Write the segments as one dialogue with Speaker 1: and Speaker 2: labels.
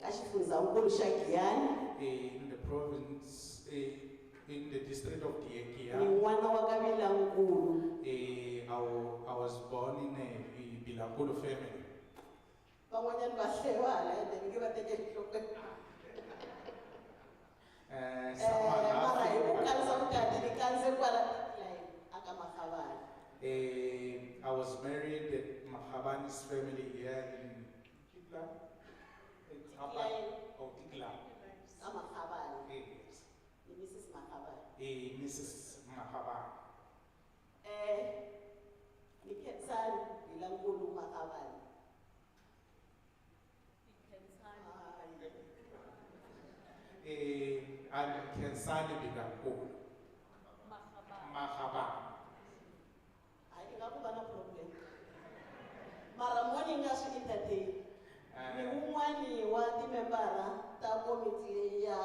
Speaker 1: ngizawukulisha Giyani
Speaker 2: eh, in the province, eh, in the district of
Speaker 1: ni
Speaker 2: Diekia.
Speaker 1: n'wana wa ka Vilankulu
Speaker 2: Eh, I, wa- I was born in a Bilakulu family.
Speaker 1: van'wanyani va hlewala ende mi nge va tekeli nhlokweni
Speaker 2: Eh,
Speaker 1: Eh, mara hi ku
Speaker 2: someone
Speaker 1: kanisa
Speaker 2: asked-
Speaker 1: vukati ni kanze kwala lai aka Makgabane
Speaker 2: Eh, I was married at Mahabani's family here in Kitla. It's Hapa- Oh, Kitla.
Speaker 1: ka Makgabane
Speaker 2: Eh,
Speaker 1: ni Mrs Makgabane
Speaker 2: eh, Mrs. Mahabani.
Speaker 1: eh ni Khensani Vilankulu Makgabane Hayi.
Speaker 2: Eh, I'm Kensani Bilakulu, Mahabani.
Speaker 1: hayi ni nga ku va na problem mara mo ni nga swi entertain ni
Speaker 2: Eh,
Speaker 1: wun'wani wa timembara ta komiti ya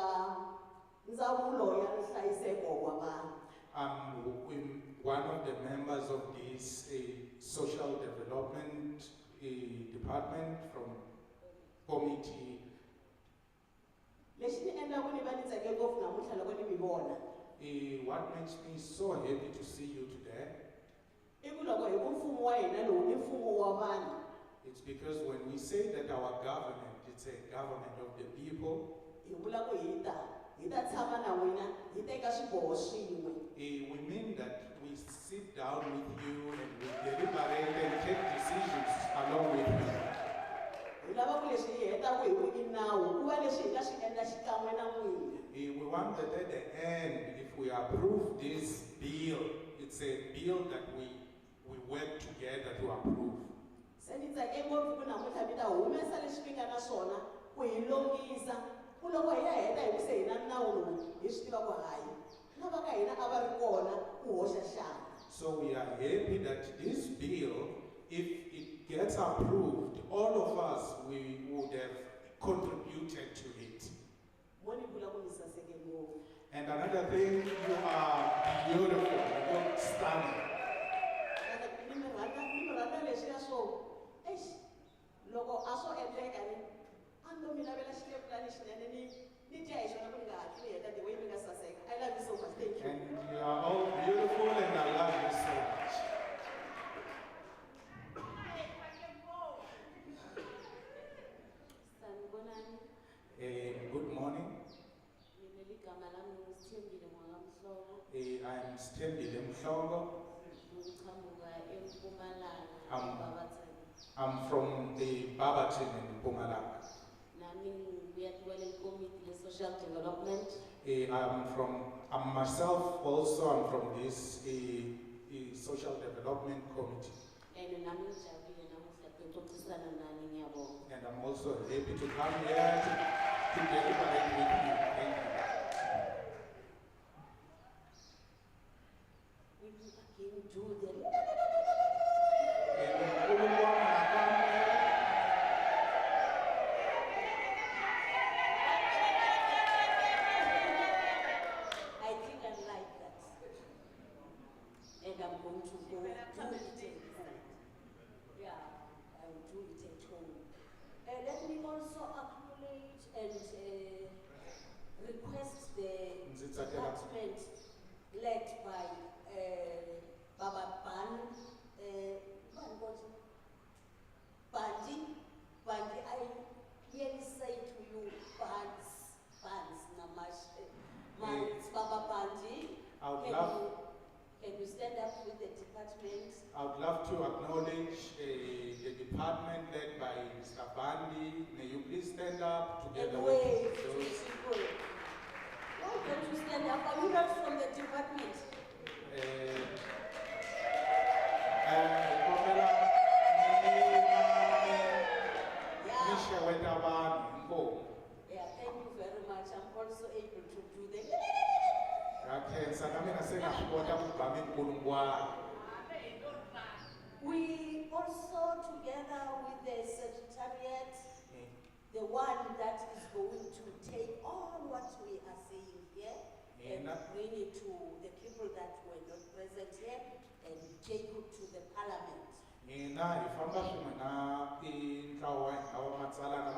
Speaker 1: ndzawulo ya nhlayiseko wa vanhu
Speaker 2: I'm w- in- one of the members of this eh, social development eh, department from committee.
Speaker 1: lexi ni endlaku ni va ni tsake ngopfu namuntlha loko ni mi vona
Speaker 2: Eh, What makes me so happy to see you today
Speaker 1: i ku loko hi ku mfumo wa hina lowu i mfumo wa vanhu
Speaker 2: It's because when we say that our government, it's a government of the people,
Speaker 1: hi vula ku hi ta hi ta tshama na n'wina hi teka swiboho swin'we
Speaker 2: eh, we mean that we sit down with you and we deliberate and take decisions along with you.
Speaker 1: hi lava ku leswi hi hetaku hi ku i nawu ku va leswi hi nga swi endla xikan'we na n'wina
Speaker 2: Eh, We want that at the end, if we approve this bill, it's a bill that we, we work together to approve.
Speaker 1: se ni tsake ngopfu ku namuntlha mi ta humesa leswi mi nga na swona ku hi longisa ku loko hi ya heta hi ku se hi na nawu lowu hi swi tiva ku hayi na va ka hina a va ri kona ku hoxa xana
Speaker 2: So we are happy that this bill, if it gets approved, all of us, we would have contributed to it.
Speaker 1: mo ni vula ku mi saseke ngopfu
Speaker 2: And another thing, you are beautiful, you look stunning.
Speaker 1: ni mi rhandza ni mi rhandza leswiya swo exi loko a swo endleka ni a ni to mi lavela xilepulani xinene ni ni dya hi xona ku ni nga hatli ni heta the way mi nga saseka i love you so much thank you
Speaker 2: And you are all beautiful and I love you so much.
Speaker 3: sanibonani
Speaker 2: Eh, good morning,
Speaker 3: mina ligama lami ngizithembile mwakamhloko
Speaker 2: Eh, I'm Stanley Mshongo.
Speaker 3: ngiqhamuka empumalanga
Speaker 2: Am-
Speaker 3: ebabathani
Speaker 2: I'm from the Barberton in Pumalanga.
Speaker 3: nami ngibuya kuwela ikomiti le-social development
Speaker 2: Eh, I'm from, I'm myself also, I'm from this eh, eh, Social Development Committee.
Speaker 3: and nami ngijabule namuhla kuxoxisana nani ngiyabonga
Speaker 2: And I'm also happy to come here to, to deliberate with you. Thank you.
Speaker 3: we will again do the
Speaker 2: Eh, unkulunkulu wami nakamwe.
Speaker 3: i think i like that and i'm going to go do it at home yeah i will do it at home Uh, let me also acknowledge and uh, request the
Speaker 2: Nzitsathela.
Speaker 3: department led by uh, Baba Ban, uh, Ban Boti, Bandi, Bandi, I clearly say to you, Bans, Bans, Namash, uh, Bans, Baba Bandi.
Speaker 2: Eh. I would
Speaker 3: Can
Speaker 2: love,
Speaker 3: you, can you stand up with the department?
Speaker 2: I would love to acknowledge eh, the department led by Mr. Bandi. May you please stand up together
Speaker 3: And
Speaker 2: with
Speaker 3: wave to the
Speaker 2: those.
Speaker 3: people. Why don't you stand up? Are you not from the department?
Speaker 2: Eh, eh, kopela mina
Speaker 3: Yeah.
Speaker 2: mishe weta vanhu inkomo
Speaker 3: Yeah, thank you very much. I'm also able to do the
Speaker 2: ngakhensa na mina se na swi kota ku ba minkulungwana
Speaker 3: We also, together with the secretariat,
Speaker 2: Eh,
Speaker 3: the one that is going to take all what we are saying here and
Speaker 2: Mina-
Speaker 3: bring it to the people that were not present here and take it to the parliament.
Speaker 2: mina hi famba swin'we na i ntlawa hi lava matsalana